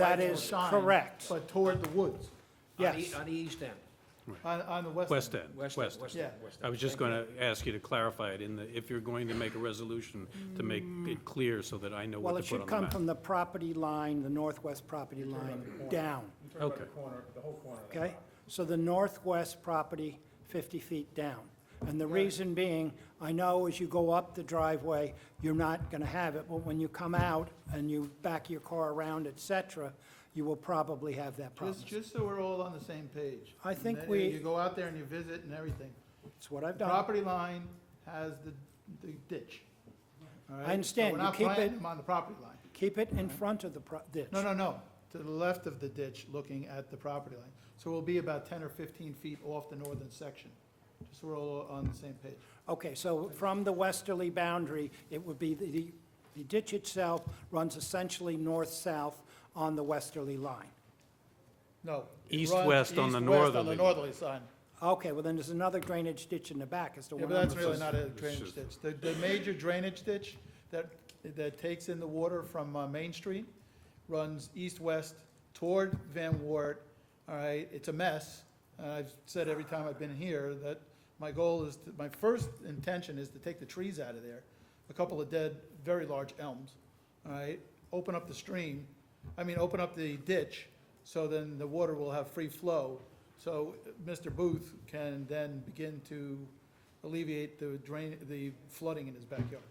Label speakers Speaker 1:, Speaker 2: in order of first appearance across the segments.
Speaker 1: That
Speaker 2: Right
Speaker 1: is
Speaker 2: toward the sign,
Speaker 1: correct.
Speaker 2: But toward the woods,
Speaker 1: Yes.
Speaker 3: On the, on the east end,
Speaker 2: on, on the west.
Speaker 4: West
Speaker 2: end.
Speaker 4: End,
Speaker 3: west
Speaker 4: West
Speaker 3: end,
Speaker 4: End.
Speaker 3: west end,
Speaker 2: Yeah.
Speaker 3: west end.
Speaker 4: I was just
Speaker 3: Thank
Speaker 4: going to ask you to clarify it in the, if you're going to make a resolution, to make it clear so that I know
Speaker 1: Well,
Speaker 4: what
Speaker 1: it
Speaker 4: to put
Speaker 1: should
Speaker 4: on the
Speaker 1: come
Speaker 4: map.
Speaker 1: from the property line, the northwest property line, down,
Speaker 4: Okay.
Speaker 1: okay? So the northwest property, 50 feet down. And the reason being, I know as you go up the driveway, you're not going to have it, but when you come out and you back your car around, et cetera, you will probably have that problem.
Speaker 2: Just, just so we're all on the same page.
Speaker 1: I think
Speaker 2: And then
Speaker 1: we-
Speaker 2: You go out there and you visit and everything.
Speaker 1: It's what I've
Speaker 2: The
Speaker 1: done.
Speaker 2: property line has the, the ditch. all right? So
Speaker 1: understand. You keep
Speaker 2: We're not planting
Speaker 1: it-
Speaker 2: them on the property line.
Speaker 1: Keep it in front of the pro- ditch.
Speaker 2: No, no, no, to the left of the ditch, looking at the property line. So we'll be about ten or fifteen feet off the northern section, just so we're all on the same page.
Speaker 1: Okay, so from the westerly boundary, it would be, the the ditch itself runs essentially north-south on the westerly line.
Speaker 2: No. it runs
Speaker 4: East-west on the
Speaker 2: east-west On the
Speaker 4: northerly.
Speaker 2: northerly side.
Speaker 1: Okay, well, then there's another drainage ditch in the back, is the
Speaker 2: Yeah,
Speaker 1: one
Speaker 2: but
Speaker 1: I'm
Speaker 2: that's really
Speaker 4: just-
Speaker 2: not a
Speaker 4: it's
Speaker 2: drainage
Speaker 4: just-
Speaker 2: ditch. The, the major drainage ditch that, that takes in the water from uh, Main Street runs east-west toward Van Wert, all right? It's a mess. And I've said every time I've been here that my goal is, to- my first intention is to take the trees out of there, a couple of dead, very large elms, all right? Open up the stream, I mean, open up the ditch, so then the water will have free flow. So uh, Mr. Booth can then begin to alleviate the drain, the flooding in his backyard.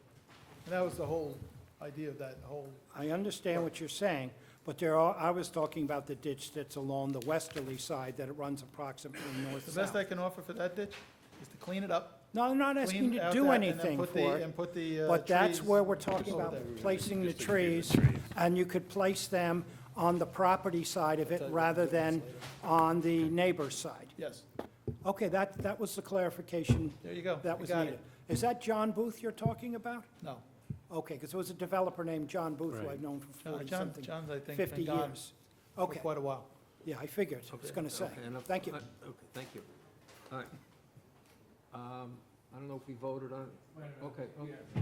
Speaker 2: And that was the whole idea of that whole,
Speaker 1: I understand what you're saying, but there are, I was talking about the ditch that's along the westerly side, that it runs approximately
Speaker 2: the best
Speaker 1: north-south.
Speaker 2: I can offer for that ditch is to clean it up.
Speaker 1: No, I'm not
Speaker 2: clean
Speaker 1: asking you to
Speaker 2: out
Speaker 1: do
Speaker 2: that, and then
Speaker 1: anything
Speaker 2: put the-
Speaker 1: for it,
Speaker 2: And put the, uh,
Speaker 1: but that's
Speaker 2: trees
Speaker 1: where we're talking
Speaker 2: over
Speaker 1: about
Speaker 2: there.
Speaker 1: placing the trees, and you could place them on the property side of it rather than on the neighbor's side.
Speaker 2: Yes,
Speaker 1: Okay, that, that was the clarification
Speaker 2: there you go.
Speaker 1: that
Speaker 2: You
Speaker 1: was
Speaker 2: got
Speaker 1: needed.
Speaker 2: it.
Speaker 1: Is that John Booth you're talking about?
Speaker 2: No,
Speaker 1: Okay, because there was a developer named John Booth who
Speaker 4: Right.
Speaker 1: I've known for
Speaker 2: No, Uh, John,
Speaker 1: forty-something,
Speaker 2: John's, I think,
Speaker 1: fifty
Speaker 2: been gone
Speaker 1: years.
Speaker 2: for
Speaker 1: Okay,
Speaker 2: quite a while.
Speaker 1: yeah, I figured, I was
Speaker 3: Okay,
Speaker 1: going to say.
Speaker 3: okay, enough.
Speaker 1: Thank you.
Speaker 3: Uh, Okay, thank you. All right. Um, I don't know if we voted on it. Okay, okay.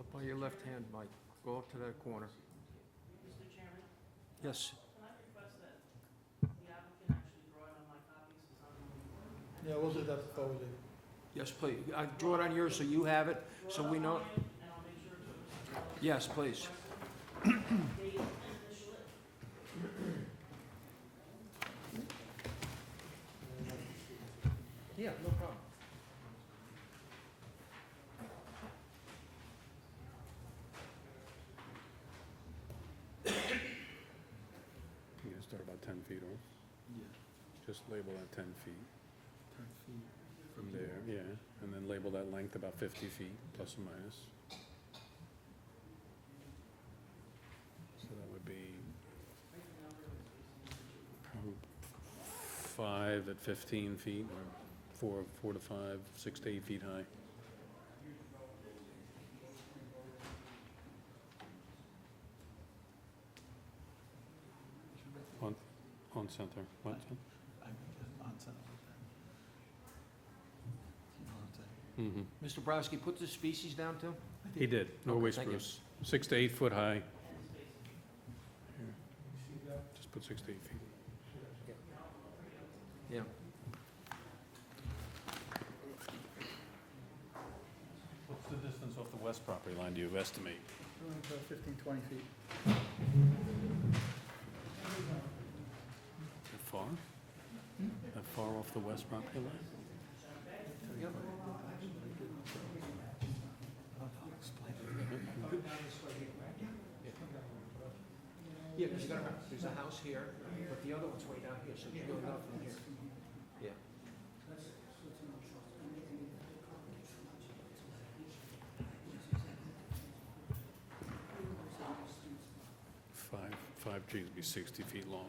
Speaker 3: Up on your left hand, Mike, go up to that corner. Yes.
Speaker 2: Yeah, we'll do that before we leave.
Speaker 3: Yes, please. I Draw it on yours so you have it, so we know. Yes, please. Yeah, no problem.
Speaker 4: You're going to start about 10 feet off? Just label that 10 feet from there, yeah, and then label that length about 50 feet, plus or minus. So that would be prob- five at 15 feet, or four, four to five, six to eight feet high. On, on center, what, mm-hmm.
Speaker 3: Mr. Browski, put the species down too?
Speaker 4: He did, Norway
Speaker 3: thank you.
Speaker 4: spruce, six to eight foot high. Just put six to eight feet.
Speaker 3: Yeah.
Speaker 4: What's the distance off the west property line do you estimate?
Speaker 2: About fifteen, twenty feet.
Speaker 4: That far? That far off the west property line?
Speaker 3: Yeah, because you gotta remember, there's a house here, but the other one's way down here, so you go down from here. Yeah.
Speaker 4: Five, five trees would be sixty feet long.